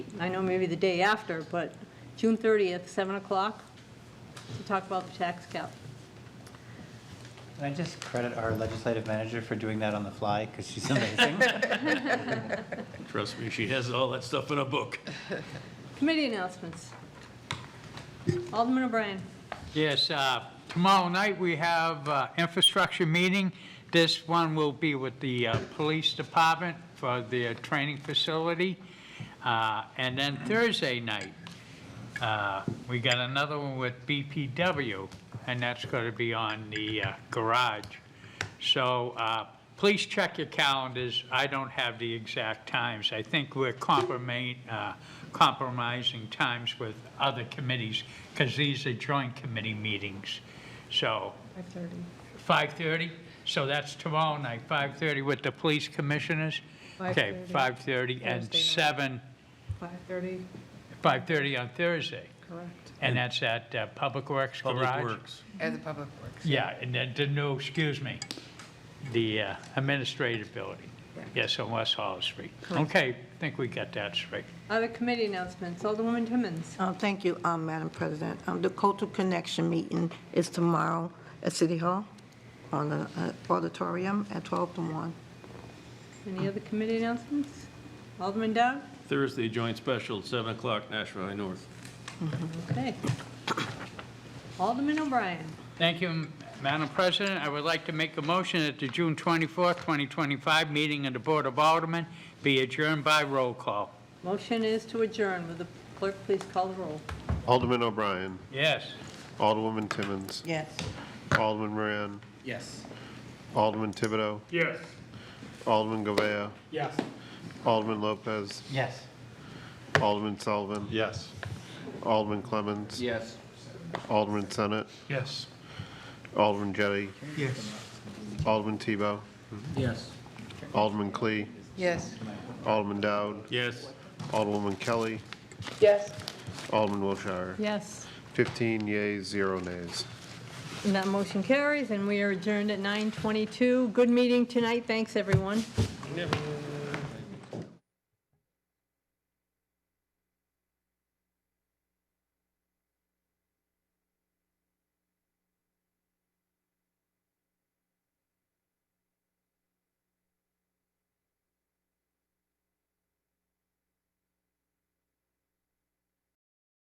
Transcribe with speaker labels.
Speaker 1: I know maybe the day after, but June 30th, 7 o'clock, to talk about the tax cap.
Speaker 2: Can I just credit our legislative manager for doing that on the fly, because she's amazing?
Speaker 3: Trust me, she has all that stuff in a book.
Speaker 1: Committee announcements. Alderman O'Brien.
Speaker 4: Yes, uh, tomorrow night we have uh, infrastructure meeting. This one will be with the uh, police department for their training facility. Uh, And then Thursday night, uh, we got another one with BPW, and that's going to be on the uh, garage. So uh, please check your calendars. I don't have the exact times. I think we're compromi- uh, compromising times with other committees because these are joint committee meetings. So. 5:30. 5:30? So that's tomorrow night, 5:30 with the police commissioners? Okay, 5:30 and 7,
Speaker 5: 5:30,
Speaker 4: 5:30 on Thursday.
Speaker 5: correct.
Speaker 4: And that's at uh, Public Works Garage?
Speaker 3: Public Works.
Speaker 5: As a public works.
Speaker 4: Yeah, and then, the- no, excuse me, the uh, administrative building.
Speaker 5: Correct.
Speaker 4: Yes, on West Hollow Street. Okay, think we got that straight.
Speaker 1: Other committee announcements. Alderwoman Timmons.
Speaker 6: Uh, Thank you, um, Madam President. Um, The Cultural Connection meeting is tomorrow at City Hall on the uh, auditorium at 12 to 1.
Speaker 1: Any other committee announcements? Alderman Dowd?
Speaker 3: Thursday joint special, 7 o'clock, Nashville High North.
Speaker 1: Okay. Alderman O'Brien.
Speaker 4: Thank you, Madam President. I would like to make a motion that the June 24th, 2025 meeting of the Board of Aldermen be adjourned by roll call.
Speaker 1: Motion is to adjourn. Will the clerk please call the roll?
Speaker 7: Alderman O'Brien,
Speaker 4: Yes.
Speaker 7: Alderwoman Timmons,
Speaker 6: Yes.
Speaker 7: Alderman Moran,
Speaker 8: Yes.
Speaker 7: Alderman Thibodeau,
Speaker 8: Yes.
Speaker 7: Alderman Govea,
Speaker 8: Yes.
Speaker 7: Alderman Lopez,
Speaker 2: Yes.
Speaker 7: Alderman Sullivan,
Speaker 3: Yes.
Speaker 7: Alderman Clemmons,
Speaker 8: Yes.
Speaker 7: Alderman Senate,
Speaker 3: Yes.
Speaker 7: Alderman Jettie,
Speaker 8: Yes.
Speaker 7: Alderman Tebow,
Speaker 8: Yes.
Speaker 7: Alderman Clee,
Speaker 5: Yes.
Speaker 7: Alderman Dowd,
Speaker 3: Yes.
Speaker 7: Alderwoman Kelly,
Speaker 5: Yes.
Speaker 7: Alderman Wiltshire.
Speaker 1: Yes.
Speaker 7: 15 yeas, zero nays.
Speaker 1: And that motion carries, and we are adjourned at 9:22. Good meeting tonight. Thanks, everyone.